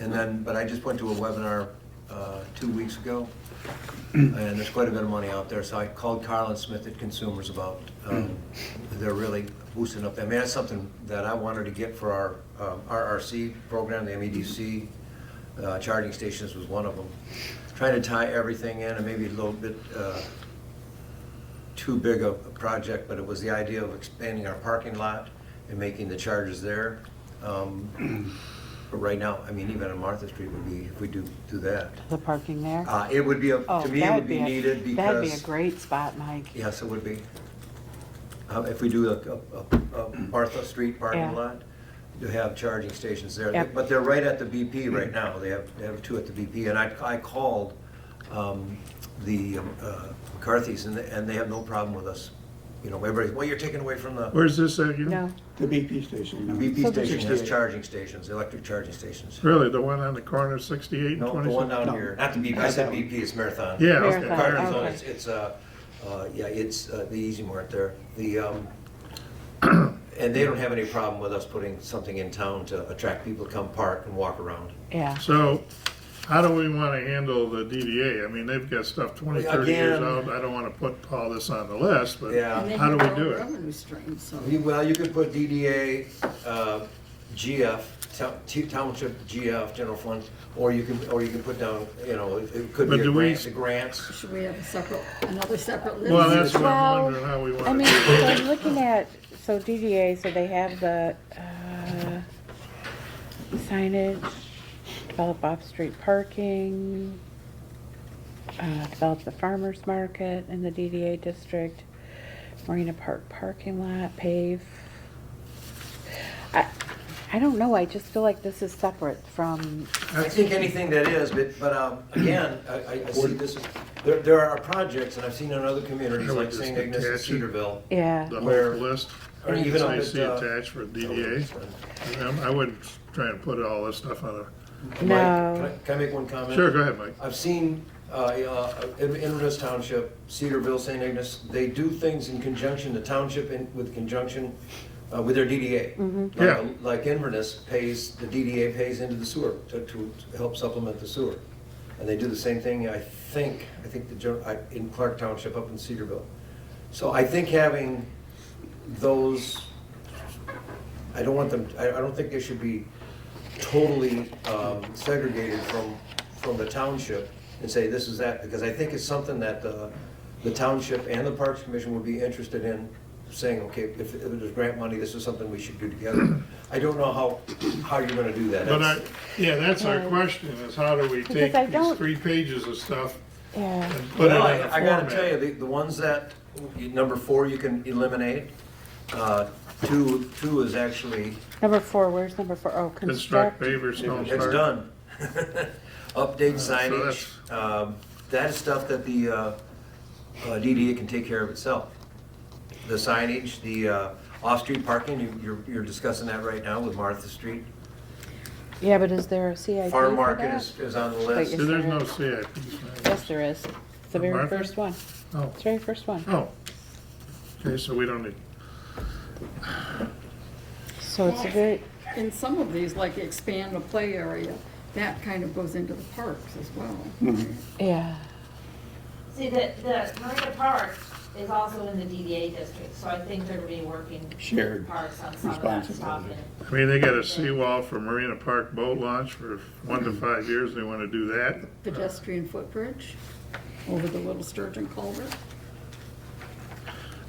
And then, but I just went to a webinar uh, two weeks ago, and there's quite a bit of money out there, so I called Carl and Smith at Consumers about, um, they're really boosting up, that. I mean, that's something that I wanted to get for our um, RRC program, the MEDC, uh, charging stations was one of them. Trying to tie everything in, and maybe a little bit uh, too big of a project, but it was the idea of expanding our parking lot and making the charges there. Um, But right now, I mean, even on Martha Street would be, if we do, do that. The parking there? Uh, It would be, a Oh, to me, it that would be a- needed That'd be a because, Mm-hmm. great spot, Mike. yes, it would be. Uh, If we do a- a, a, a Martha Street parking Yeah. lot, you have charging stations there. Yep. But they're right at the BP right now. They have, they have two at the BP. And I, I called um, the um, uh, McCarthy's and, they- and they have no problem with us. You know, everybody, well, you're taking away from the Where's this at again? No, The BP station. no. BP So there's- station, there's charging stations, electric charging stations. Really, the one on the corner, 68 and No, the one 27? down No. here, not the BP, I Not said that one. BP, it's Marathon. Yeah, Marathon. okay. Carter's on, Oh, okay. it's, it's, uh, uh, yeah, it's uh, the Easy Mart there, the, um, and they don't have any problem with us putting something in town to attract people to come park and walk around. yeah. So how do we want to handle the DDA? I mean, they've got stuff 20, 30 years Again. out. I don't want to put all this on the list, but Yeah. And then how do you we build do it? Revenue stream, so. You- Well, you could put DDA, uh, GF, town- t- township GF, general fund, or you can, or you can put down, you know, it- it could But be a do we- grant, the grants. Should we have a separate, another separate list? Well, that's what Well, I'm wondering, how we I want to mean, do it. so I'm looking at, so DDA, so they have the uh, signage, develop off-street parking, uh, develop the farmer's market in the DDA district, Marina Park parking lot, pave. I, I don't know, I just feel like this is separate from, I think anything that is, but, but, um, again, I, I- I see this, as- there, there are projects, and I've seen in other communities, Yeah, we like just St. Ignace and attach it. Cedarville, yeah. The Where- whole list, or even up I at, see uh, attached for DDA. Um, I wouldn't try and put all this stuff on Mike, No. Can I- can I make one a, comment? sure, go ahead, Mike. I've seen, uh, uh, in Inverness Township, Cedarville, St. Agnes, they do things in conjunction, the township in, with conjunction, uh, with their DDA. Like- Yeah. Like Inverness pays, the DDA pays into the sewer to, to help supplement the sewer. And they do the same thing, I think, I think the, gen- I- in Clark Township up in Cedarville. So I think having those, I don't want them, I, I don't think they should be totally um, segregated from, from the township and say this is that, because I think it's something that the, the township and the Parks Commission would be interested in saying, okay, if, if there's grant money, this is something we should do together. I don't know how, how you're gonna do that. But I, That's- yeah, that's our Yeah. question, is how do we Because take I these don't- three pages of stuff Yeah. and put it in Well, a format? I I gotta tell you, the, the ones that, you- number four, you can eliminate. Uh, Two, two is actually, Number four, where's number four? Oh, construct. Construct pavers, no it's park. done. Update Uh, signage, so um, that is stuff that the uh, uh, DDA can take care of itself. The signage, the uh, off-street parking, you- you're, you're discussing that right now with Martha Street. Yeah, but is there a CIP for Farm Market that? is, is on the Wait, list. is- See, There's no CIP. sign. Yes, there is. It's the For very Martha? first one. Oh, It's the very first one. oh. Okay, so we don't need, So it's a very, In some of these, like expand the play area, that kind of goes into the parks as well. yeah. See, the, the Marina Park is also in the DDA district, so I think they're reworking Shared parks on some of that stuff. responsibility. and- I mean, they got a seawall for Marina Park boat launch for one to five years, they want to do that. Pedestrian footbridge over the Little Sturgeon culvert.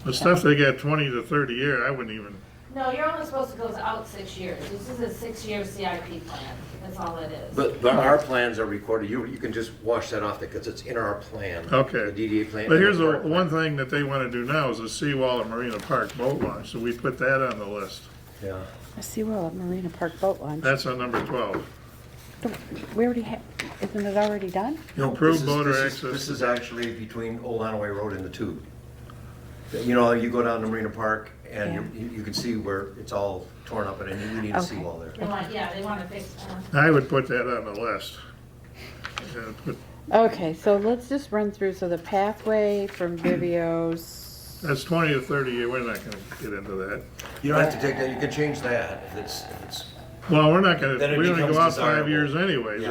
The stuff they got twenty to thirty year, I wouldn't even, No, you're only supposed to go out six years. This is a six-year CIP plan. That's all it is. But, but our plans are recorded, you, you can just wash that off because it's in our plan. Okay. The DDA plan. but here's and the park one plan. thing that they want to do now is a seawall at Marina Park boat launch, so we put that on the list. Yeah. I see well at Marina Park Boat Launch. That's on number twelve. Don't- We already have, isn't it already done? No, Improve this is- boater this is- access This to is actually between Old Hanaway Road and the Tube. You know, you go down to Marina Park and you, you you can see where it's all torn up and you need a Okay. seawall there. They want, yeah, they want to fix, um, I would put that on the list. Uh, put- Okay, so let's just run through. So the pathway from Vivio's, That's twenty to thirty year, we're not gonna get into that. You don't have to take that, you can change that if it's, if it's Well, we're not Then gonna, it we're gonna becomes go out five desirable. years anyway.